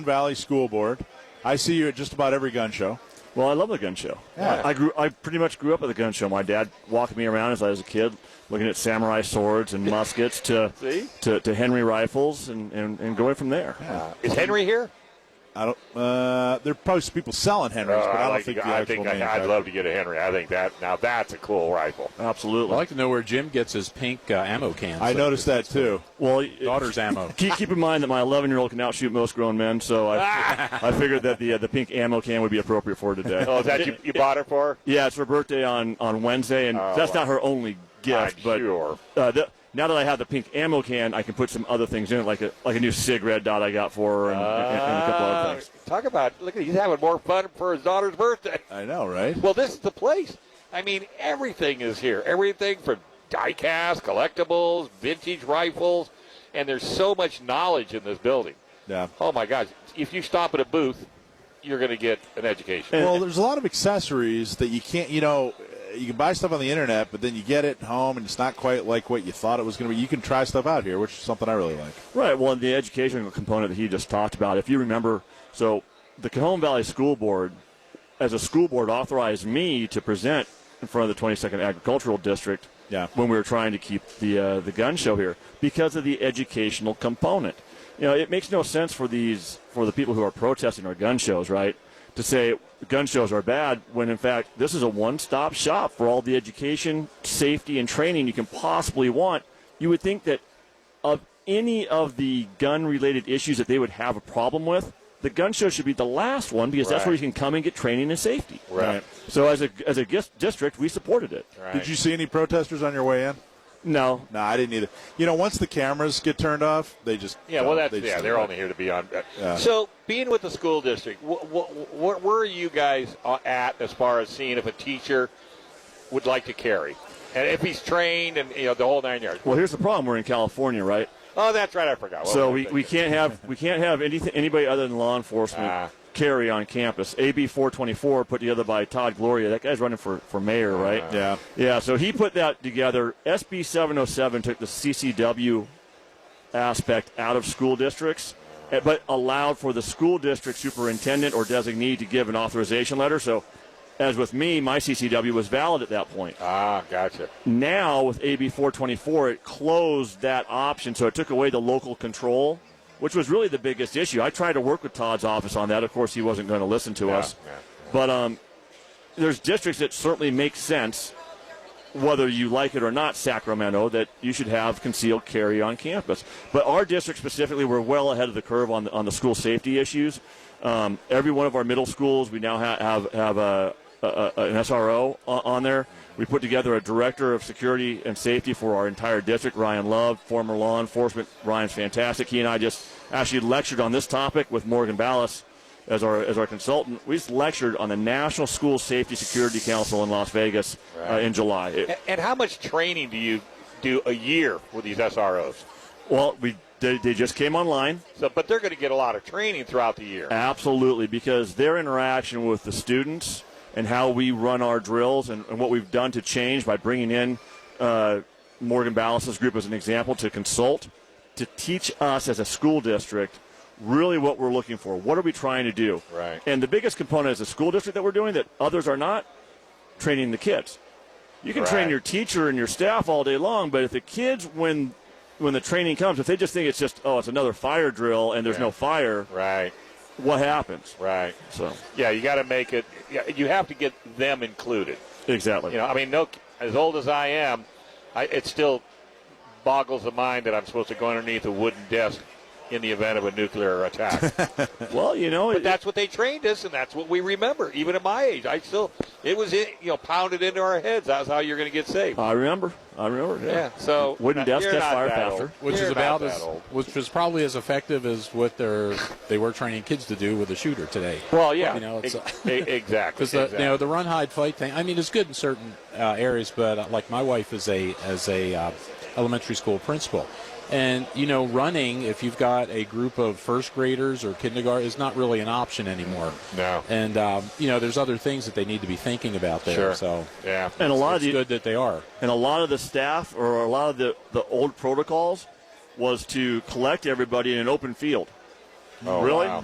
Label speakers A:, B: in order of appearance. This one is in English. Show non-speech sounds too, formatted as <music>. A: Valley School Board. I see you at just about every gun show.
B: Well, I love the gun show.
A: Yeah.
B: I, I grew. I pretty much grew up at the gun show. My dad walked me around as I was a kid, looking at samurai swords
C: <laughs>
B: and muskets to
C: See?
B: to, to Henry rifles, and, and, and going from there.
C: Is Henry here?
A: I don't. Uh, there are probably people selling Henrys, but I don't think the
C: Uh, I
A: actual
C: think I,
A: manufacturer.
C: would love to get a Henry. I think that now that's a cool rifle.
B: Absolutely.
D: I'd like to know where Jim gets his pink uh, ammo cans.
A: I noticed that too.
B: well, it-
D: Daughter's ammo.
B: <laughs> keep, keep in mind that my 11 year old can outshoot most grown men, so
C: <laughs>
B: I I figured that the uh, the pink ammo can would be appropriate for her today.
C: Oh, is that you,
A: <laughs>
C: you bought it for?
B: Yeah, it's her birthday on, on Wednesday, and
C: Oh,
B: that's
C: wow.
B: not her only gift.
C: I'm
B: but
C: sure.
B: uh, the, now that I have the pink ammo can, I can put some other things in it, like a like a new cig red dot I got for her, and, and, and a couple other
C: Uh,
B: things.
C: talk about look at he's having more fun for his daughter's birthday.
A: I know, right?
C: Well, this is the place. I mean, everything is here. Everything from diecast, collectibles, vintage rifles, and there's so much knowledge in this building.
A: Yeah.
C: Oh my gosh! If you stop at a booth, you're going to get an education.
A: Well, there's a lot of accessories that you can't. You know, you can buy stuff on the internet, but then you get it home and it's not quite like what you thought it was going to be. You can try stuff out here, which is something I really like.
B: Right. Well, and the educational component that he just talked about, if you remember, so the Cajon Valley School Board, as a school board, authorized me to present in front of the 22nd Agricultural District
A: Yeah.
B: when we were trying to keep the uh, the gun show here because of the educational component. You know, it makes no sense for these for the people who are protesting our gun shows, right? To say gun shows are bad when in fact this is a one-stop shop for all the education, safety, and training you can possibly want. You would think that of any of the gun related issues that they would have a problem with, the gun show should be the last one because that's where you
C: Right.
B: can come and get training and safety.
C: Right.
B: So as a as a gis- district, we supported it.
C: Right.
A: Did you see any protesters on your way in?
B: No,
A: No, I didn't either. You know, once the cameras get turned off, they just
C: Yeah, well,
A: don't.
C: that's
A: They just
C: yeah.
A: don't.
C: They're only here to be on. uh,
A: Yeah.
C: So, being with the school district, wh- wh- wh- where are you guys uh, at as far as seeing if a teacher would like to carry, and if he's trained, and you know the whole nine yards?
B: well here's the problem. We're in California, right?
C: Oh, that's right. I forgot. What
B: so
C: was I
B: we, we
C: thinking?
B: can't have we can't have anything anybody other than law enforcement
C: Ah.
B: carry on campus. AB 424 put together by Todd Gloria. That guy's running for for mayor, right?
A: Yeah.
B: Yeah, so he put that together. SB 707 took the CCW aspect out of school districts, eh, but allowed for the school district superintendent or designee to give an authorization letter. So, as with me, my CCW was valid at that point.
C: Ah, gotcha.
B: Now, with AB 424, it closed that option, so it took away the local control, which was really the biggest issue. I tried to work with Todd's office on that. Of course, he wasn't going to listen to us.
C: yeah,
B: But um, there's districts that certainly make sense, whether you like it or not, Sacramento, that you should have concealed carry on campus. But our district specifically, we're well ahead of the curve on the, on the school safety issues. Um, every one of our middle schools, we now ha- have have a, a, a, an SRO on, on there. We put together a director of security and safety for our entire district, Ryan Love, former law enforcement. Ryan's fantastic. He and I just actually lectured on this topic with Morgan Ballas as our as our consultant. We just lectured on the National School Safety Security Council in Las Vegas uh, in July. It-
C: And, and how much training do you do a year with these SROs?
B: well, we they, they just came online.
C: So, but they're going to get a lot of training throughout the year.
B: Absolutely, because their interaction with the students and how we run our drills and, and what we've done to change by bringing in uh, Morgan Ballas' group as an example to consult, to teach us as a school district really what we're looking for. What are we trying to do?
C: Right.
B: And the biggest component as a school district that we're doing that others are not training the kids. You can train
C: Right.
B: your teacher and your staff all day long, but if the kids, when when the training comes, if they just think it's just oh, it's another fire drill and there's no fire,
C: Right.
B: what happens.
C: Right.
B: So
C: Yeah, you got to make it. yeah, You have to get them included.
B: exactly.
C: You know, I mean, no. As old as I am, I, it still boggles the mind that I'm supposed to go underneath a wooden desk in the event of a nuclear
D: <laughs>
C: attack.
B: well, you know,
C: but
B: it,
C: that's what they trained us, and that's what we remember. Even at my age, I still it was in, you know pounded into our heads. That's how you're going to get saved.
B: I remember. I remember. Yeah.
C: yeah. So uh,
B: Wooden
C: you're
B: desk catch
C: not
B: fire
C: that
B: faster.
C: old.
D: Which
C: You're
D: is
C: not
D: about
C: that
D: as,
C: old.
D: which is probably as effective as what they're they were training kids to do with the shooter today.
C: Well, yeah.
D: You know, it's
C: Ex- e- exactly.
D: because the
C: exactly.
D: you know the run hide fight thing. I mean, it's good in certain uh, areas, but uh, like my wife is a as a uh, elementary school principal, and you know, running if you've got a group of first graders or kindergarten is not really an option anymore.
C: No.
D: and um, you know, there's other things that they need to be thinking about there.
C: sure.
D: So
C: yeah.
B: And a lot of
D: it's
B: the
D: good that they are.
B: and a lot of the staff or a lot of the the old protocols was to collect everybody in an open field.
C: Oh,
B: really?
C: wow.